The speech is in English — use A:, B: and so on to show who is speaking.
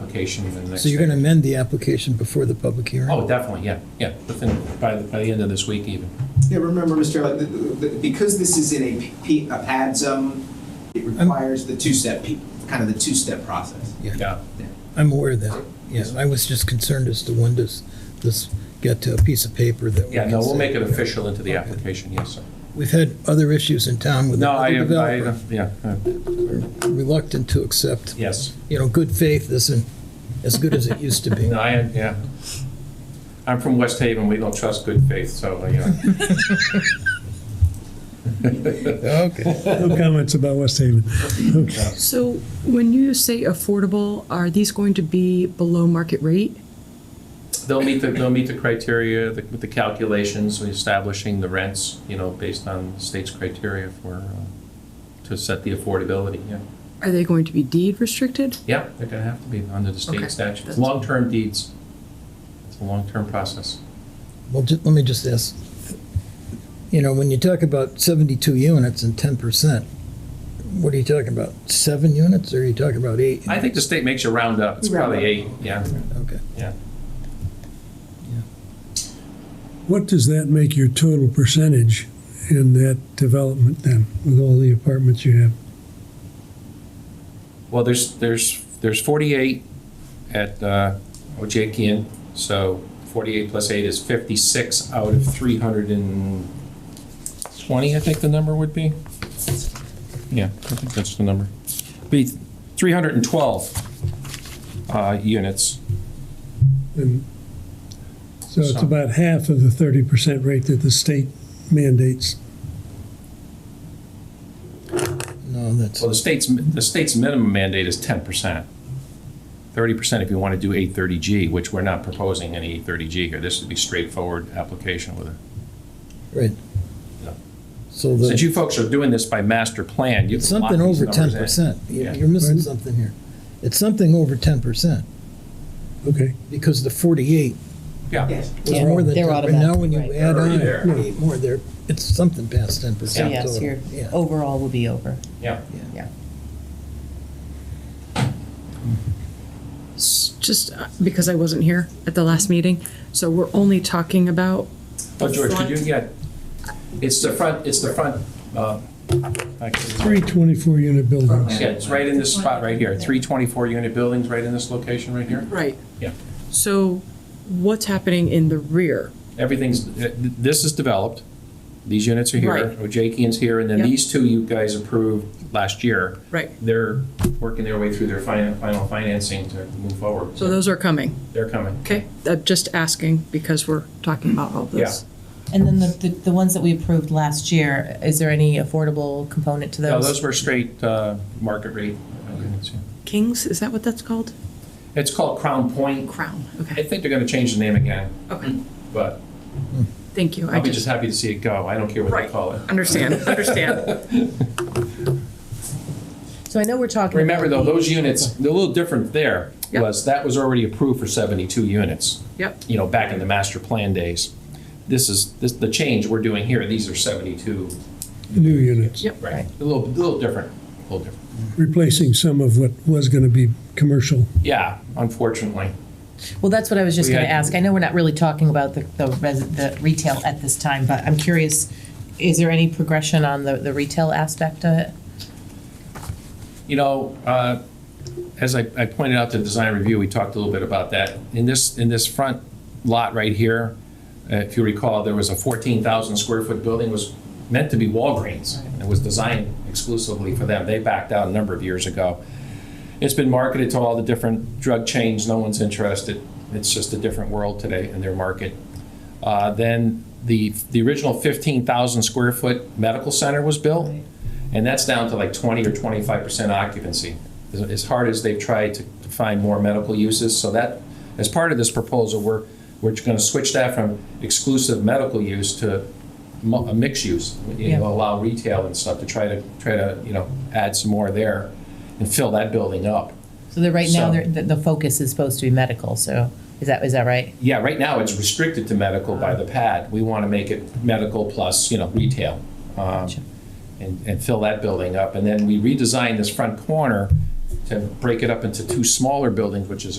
A: application in the next.
B: So you're going to
A: day.
B: amend the application before the public hearing?
A: Oh, definitely, yeah, yeah, within, by, the- by the end of this week even.
C: Yeah, remember, Mr. Allen, th- th- th- because this is in a P, a pad zone, it requires the two-step, pe- kind of the two-step process.
A: Yeah,
B: I'm aware of that, yeah. I was just concerned as to when does this get to a piece of paper that. we
A: yeah, no,
B: can
A: we'll
B: say-
A: make it official into the application, yes, sir.
B: We've had other issues in town with
A: No, I,
B: other
A: I,
B: developers
A: yeah, uh,
B: reluctant to accept,
A: yes,
B: you know, good faith isn't as good as it used to be.
A: no, I, yeah. I'm from West Haven, we don't trust good faith, so, uh, yeah.
B: Okay.
D: No comments about West Haven.
E: So when you say affordable, are these going to be below market rate?
A: They'll meet the, they'll meet the criteria, the, with the calculations, establishing the rents, you know, based on the state's criteria for, uh, to set the affordability, yeah.
E: Are they going to be deed restricted?
A: Yeah, they're gonna have to be under the
E: Okay,
A: state statute. It's
E: that's-
A: long-term deeds. It's a long-term process.
B: Well, ju- let me just ask, you know, when you talk about 72 units and 10%, what are you talking about? Seven units or are you talking about eight?
A: I think the state makes you round up. It's
C: Round
A: probably
C: up.
A: eight, yeah.
B: Okay.
D: What does that make your total percentage in that development then, with all the apartments you have?
A: Well, there's, there's, there's forty-eight at, uh, Ojekian, so forty-eight plus eight is fifty-six out of three hundred and twenty, I think the number would be. Yeah, I think that's the number. Be three hundred and twelve, uh, units.
D: And so it's
A: So-
D: about half of the thirty percent rate that the state mandates.
B: No, that's,
A: Well, the state's, the state's minimum mandate is ten percent. Thirty percent if you want to do eight thirty G, which we're not proposing any eight thirty G here. This would be straightforward application with it.
B: right.
A: Yeah.
B: So the.
A: Since you folks are doing this by master plan, you
B: It's
A: can lock
B: something
A: these
B: over ten
A: numbers in.
B: percent.
A: Yeah.
B: You're missing something here. It's something over ten percent,
D: Okay,
B: because the forty-eight
A: Yeah,
C: Yes.
B: was
F: Yeah,
B: more than
F: they're
B: ten. But now
F: automatic,
B: when you
F: right.
B: add
A: Already
B: on
A: there.
B: eight more, there, it's something past ten
F: So
B: percent.
F: yes, your
B: Yeah,
F: overall will be over.
A: yeah.
E: S- Just uh, because I wasn't here at the last meeting, so we're only talking about,
A: Oh, George, could you
E: Front.
A: get, it's the front, it's the front, uh, I can-
D: three twenty-four unit buildings.
A: yeah, it's right in this spot right here. Three twenty-four unit buildings right in this location right here.
E: right?
A: Yeah.
E: So what's happening in the rear?
A: everything's, uh, th- this is developed, these units are here,
E: Right.
A: Ojekian's here, and then
E: Yep.
A: these two you guys approved last year.
E: Right.
A: They're working their way through their final, final financing to move forward.
E: So those are coming,
A: They're coming.
E: okay? I'm just asking because we're talking about all this.
F: And then the, the, the ones that we approved last year, is there any affordable component to
A: No,
F: those?
A: those were straight uh, market rate. units, yeah.
E: Kings, is that what that's called?
A: It's called Crown Point.
E: Crown,
A: I
E: okay,
A: think they're gonna change the name again,
E: okay.
A: but
E: Thank you, I
A: I'll be just
E: just,
A: happy to see it go. I don't care what they
E: Right.
A: call it.
E: understand, understand.
F: So I know we're talking.
A: Remember though,
F: about the-
A: those units, the little different there
E: Yep.
A: was that was already approved for 72 units.
E: Yep,
A: you know, back in the master plan days. This is, this, the change we're doing here, these are seventy-two,
D: New units,
E: yep.
A: right? A little, a little different, a little different.
D: replacing some of what was gonna be commercial.
A: Yeah, unfortunately.
F: Well, that's what I was just
A: We
F: gonna
A: had-
F: ask. I know we're not really talking about the, the res, the retail at this time, but I'm curious, is there any progression on the, the retail aspect of it?
A: You know, uh, as I, I pointed out to design review, we talked a little bit about that. In this, in this front lot right here, uh, if you recall, there was a fourteen thousand square foot building, was meant to be Walgreens. It was designed exclusively for them. They backed out a number of years ago. It's been marketed to all the different drug chains, no one's interested. It's just a different world today in their market. Uh, Then the, the original 15,000 square foot medical center was built, and that's down to like 20 or 25% occupancy. As- As hard as they've tried to to find more medical uses, so that, as part of this proposal, we're, we're going to switch that from exclusive medical use to mu- a mixed use, you know,
F: Yeah.
A: allow retail and stuff to try to, try to, you know, add some more there and fill that building up.
F: So that right now,
A: So-
F: they're- the, the focus is supposed to be medical, so is that, is that right?
A: Yeah, right now it's restricted to medical by the pad. We want to make it medical plus, you know, retail. um,
F: Gotcha.
A: And, and fill that building up. And then we redesigned this front corner to break it up into two smaller buildings, which is